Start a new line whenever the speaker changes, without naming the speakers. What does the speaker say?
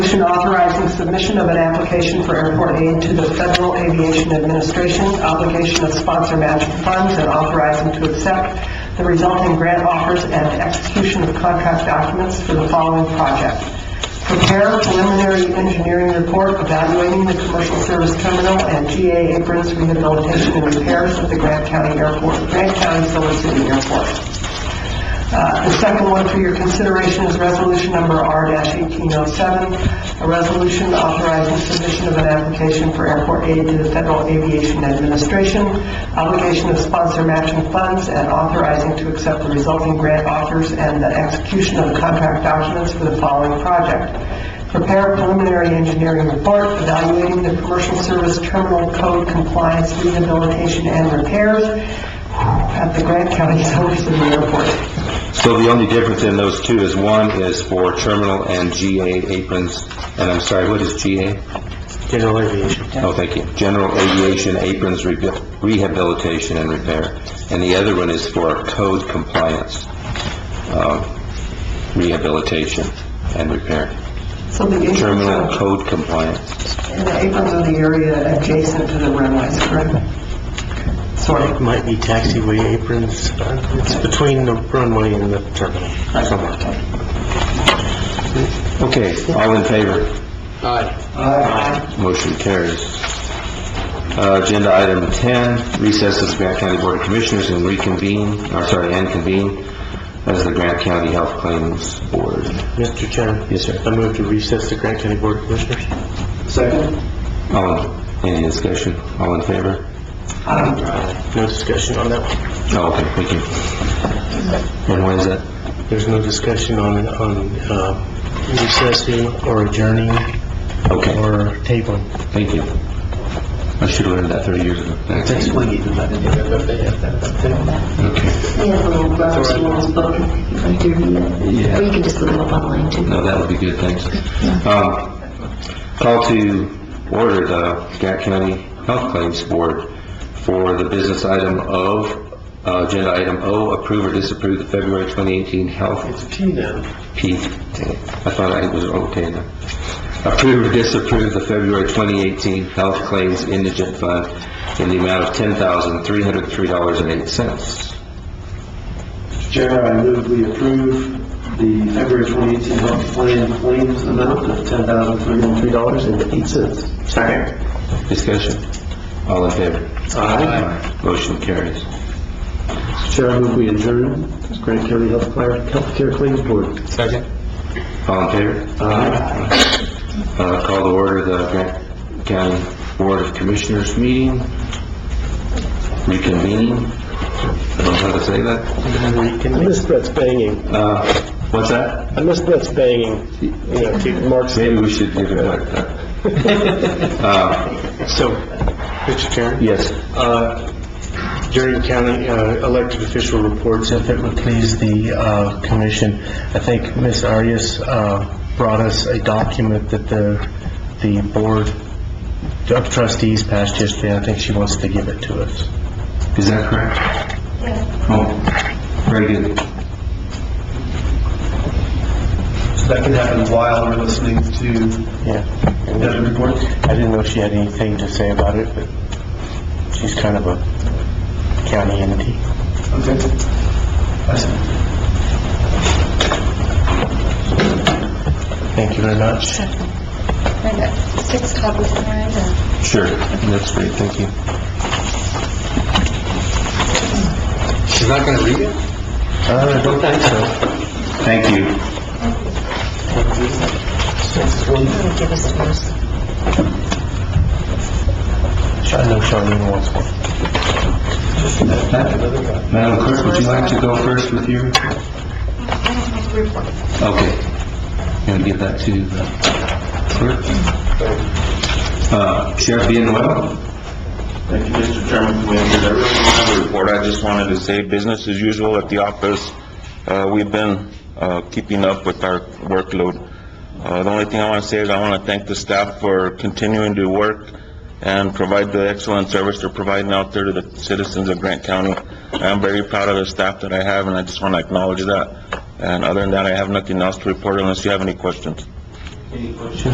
resolution authorizing submission of an application for airport aid to the Federal Aviation Administration, obligation of sponsor match funds, and authorizing to accept the resulting grant offers and execution of contract documents for the following project. Prepare preliminary engineering report evaluating the commercial service terminal and GA aprons rehabilitation and repairs at the Grant County Airport, Grant County Silver City Airport. Uh, The second one for your consideration is resolution number R-1807, a resolution authorizing submission of an application for airport aid to the Federal Aviation Administration, obligation of sponsor matching funds, and authorizing to accept the resulting grant offers and the execution of the contract documents for the following project. Prepare preliminary engineering report evaluating the commercial service terminal code compliance rehabilitation and repairs at the Grant County Silver City Airport.
So the only difference in those two is one is for terminal and GA aprons, and I'm sorry, what is GA?
General aviation.
Oh, thank you. General aviation aprons rehabil- rehabilitation and repair. And the other one is for code compliance, uh, rehabilitation and repair.
So the aprons
Terminal
are,
code compliance.
and the aprons are the area adjacent to the runways, correct? Sort
It
of.
might be taxiway aprons. uh, It's between the runway and the terminal.
Okay, all in favor?
Aye.
Motion carries. Uh, Agenda item 10, recess as Grant County Board of Commissioners and reconvene, or sorry, and convene as the Grant County Health Claims Board.
Mr. Chairman?
Yes, sir.
I move to recess the Grant County Board of Commissioners.
All, any discussion? All in favor?
No discussion on that one.
Oh, okay, thank you. And when is that?
There's no discussion on, on, uh, recessing or adjourning
Okay,
or tabling.
thank you. I should have learned that 30 years ago. Thanks.
why you do that.
Okay.
We have little graphs in this book, right here, or
Yeah.
you can just look them up online too.
No, that would be good, thanks. Um, Call to order the Grant County Health Claims Board for the business item of, uh, agenda item O, approve or disapprove the February 2018 health
It's T now.
P. I thought I was okay now. Approve or disapprove the February 2018 health claims indigent fund in the amount of $10,303.08.
Chair, I move we approve the February 2018 health plan claims amount of $10,303.08. Second.
Discussion? All in favor?
Aye.
Motion carries.
Chair, I move we adjourn this Grant County Health Care- Healthcare Claims Board.
Second. All in favor?
Aye.
Uh, Call to order the Grant County Board of Commissioners meeting, reconvening. I don't know how to say that.
Reconvene.
Miss Brett's banging.
Uh, What's that?
I miss Brett's banging. You know, keep marks.
Maybe we should give it like that. Uh,
So, Mr. Chairman?
Yes,
Uh, During county uh, elected official reports, if it would please the uh, commission, I think Ms. Arias uh, brought us a document that the, the board of trustees passed yesterday. I think she wants to give it to us.
is that correct? Oh, very good.
That can happen while we're listening to
Yeah. um,
the report.
I didn't know if she had anything to say about it, but she's kind of a county entity.
Okay. I see.
Thank you very much.
I got six copies in there, and
Sure, that's great, thank you. She's not going to read it?
Uh, I don't think so.
Thank you.
I'm gonna give us yours.
I know Charlene wants one.
Madam Clerk, would you like to go first with your? report?
I don't have the report.
Okay. Going to give that to the clerk. Uh, Sheriff Villanueva?
Thank you, Mr. Chairman, Commissioners. I really don't have a report. I just wanted to say business as usual at the office. Uh, We've been uh, keeping up with our workload. Uh, The only thing I want to say is I want to thank the staff for continuing to work and provide the excellent service they're providing out there to the citizens of Grant County. I'm very proud of the staff that I have, and I just want to acknowledge that. And other than that, I have nothing else to report unless you have any questions.